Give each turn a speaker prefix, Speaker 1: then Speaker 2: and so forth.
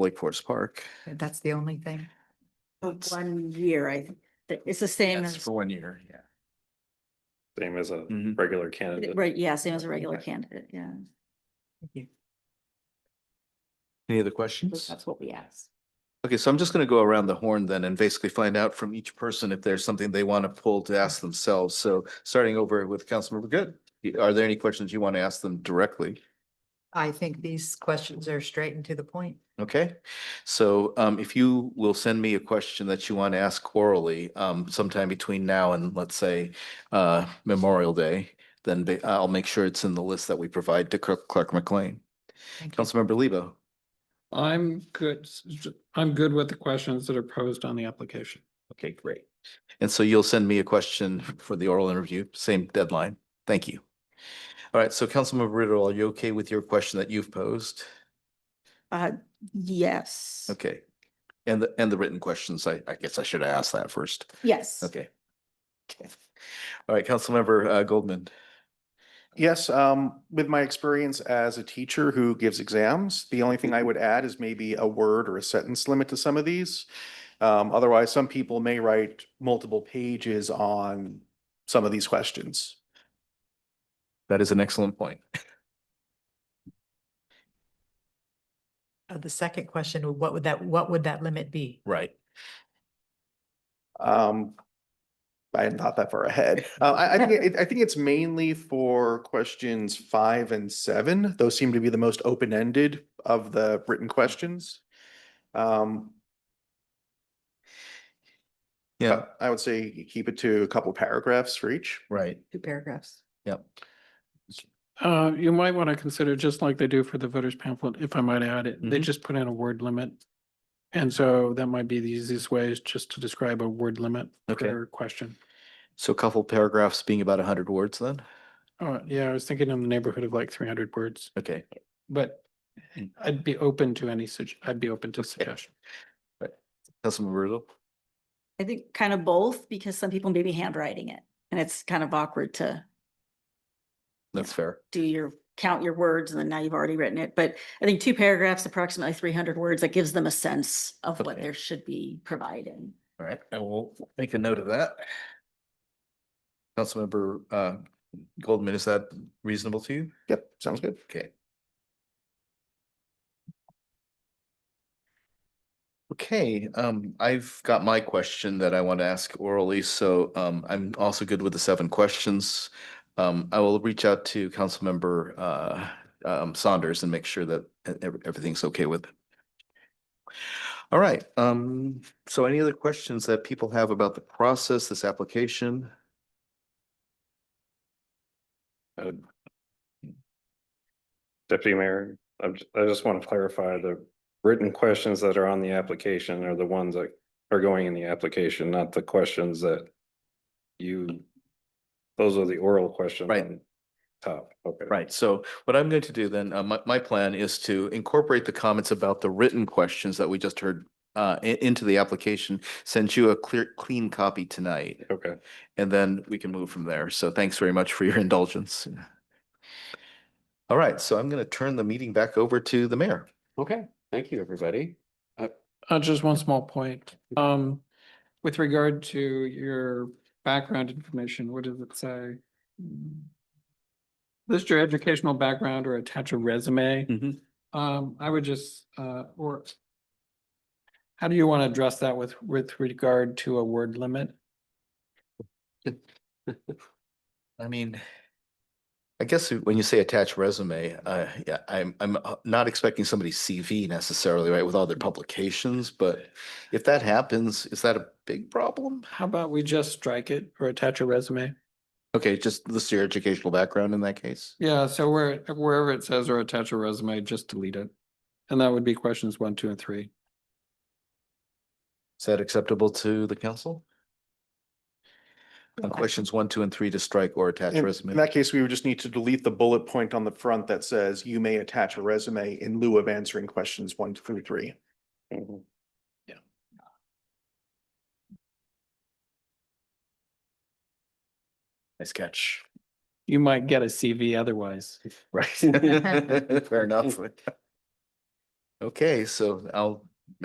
Speaker 1: Lake Forest Park.
Speaker 2: That's the only thing.
Speaker 1: That's
Speaker 3: One year, I, th- it's the same
Speaker 1: that's
Speaker 3: as,
Speaker 1: for one year, yeah.
Speaker 4: Same as a
Speaker 1: Mhm.
Speaker 4: regular candidate.
Speaker 3: right, yeah, same as a regular candidate, yeah.
Speaker 1: Any other questions?
Speaker 3: That's what we asked.
Speaker 1: Okay, so I'm just gonna go around the horn then and basically find out from each person if there's something they want to pull to ask themselves. So starting over with Councilmember Good, y- are there any questions you want to ask them directly?
Speaker 2: I think these questions are straight and to the point.
Speaker 1: Okay, so um if you will send me a question that you want to ask orally um sometime between now and let's say uh Memorial Day, then ba- I'll make sure it's in the list that we provide to Clerk Clerk McLean.
Speaker 2: Thank you.
Speaker 1: Councilmember Lebo,
Speaker 5: I'm good, I'm good with the questions that are posed on the application.
Speaker 1: okay, great. And so you'll send me a question for the oral interview, same deadline. Thank you. All right, so Councilmember Riddle, are you okay with your question that you've posed?
Speaker 3: Uh, yes.
Speaker 1: Okay. And the and the written questions, I I guess I should have asked that first.
Speaker 3: Yes.
Speaker 1: Okay. Okay. All right, Councilmember uh, Goldman.
Speaker 4: Yes, um, with my experience as a teacher who gives exams, the only thing I would add is maybe a word or a sentence limit to some of these. Um, otherwise, some people may write multiple pages on some of these questions.
Speaker 1: That is an excellent point.
Speaker 2: Uh, The second question, what would that, what would that limit be?
Speaker 1: Right.
Speaker 4: Um, I hadn't thought that far ahead. Uh, I, I think, it- I think it's mainly for questions five and seven. Those seem to be the most open-ended of the written questions. Um,
Speaker 1: Yeah,
Speaker 4: I would say you keep it to a couple paragraphs for each.
Speaker 1: right.
Speaker 2: Two paragraphs.
Speaker 1: Yep.
Speaker 5: Uh, you might want to consider, just like they do for the voters pamphlet, if I might add it, they
Speaker 1: Mhm.
Speaker 5: just put in a word limit. And so that might be the easiest way is just to describe a word limit
Speaker 1: Okay.
Speaker 5: for a question.
Speaker 1: So a couple paragraphs being about hundred words then?
Speaker 5: Oh, yeah, I was thinking in the neighborhood of like three hundred words,
Speaker 1: Okay.
Speaker 5: but I'd be open to any such, I'd be open to suggestion.
Speaker 1: Councilmember Riddle.
Speaker 3: I think kind of both because some people may be handwriting it and it's kind of awkward to
Speaker 1: That's fair.
Speaker 3: do your, count your words and then now you've already written it. But I think two paragraphs, approximately three hundred words, that gives them a sense of what
Speaker 1: Okay.
Speaker 3: there should be provided.
Speaker 1: All right, I will make a note of that. Councilmember uh, Goldman, is that reasonable to you?
Speaker 4: Yep, sounds good.
Speaker 1: Okay. Okay, um, I've got my question that I want to ask orally, so, um, I'm also good with the seven questions. Um, I will reach out to Councilmember, uh, um, Saunders and make sure that e- ev- everything's okay with it. All right, um, so any other questions that people have about the process, this application?
Speaker 6: Deputy Mayor, I'm, j- I just want to clarify the written questions that are on the application are the ones that are going in the application, not the questions that you, those are the oral questions.
Speaker 1: Right.
Speaker 6: on Top, okay.
Speaker 1: Right, so what I'm going to do then, uh, my, my plan is to incorporate the comments about the written questions that we just heard uh, i- into the application, send you a clear, clean copy tonight,
Speaker 6: Okay,
Speaker 1: and then we can move from there. So thanks very much for your indulgence. All right, so I'm going to turn the meeting back over to the mayor.
Speaker 7: Okay, thank you, everybody.
Speaker 5: Uh, just one small point. Um, with regard to your background information, what does it say? List your educational background or attach a resume.
Speaker 1: Mhm.
Speaker 5: Um, I would just, uh, or how do you want to address that with, with regard to a word limit?
Speaker 1: I mean, I guess when you say attach resume, uh, yeah, I'm, I'm uh, not expecting somebody's CV necessarily, right, with all their publications, but if that happens, is that a big problem?
Speaker 5: How about we just strike it or attach a resume?
Speaker 1: Okay, just list your educational background in that case.
Speaker 5: Yeah, so where, wherever it says or attach a resume, just delete it. And that would be questions one, two, and three.
Speaker 1: Is that acceptable to the council? On questions one, two, and three to strike or attach
Speaker 4: In in
Speaker 1: resume.
Speaker 4: that case, we would just need to delete the bullet point on the front that says you may attach a resume in lieu of answering questions one through three.
Speaker 6: Mhm.
Speaker 1: Nice catch.
Speaker 5: You might get a CV otherwise.
Speaker 1: Right. Fair enough. Okay, so I'll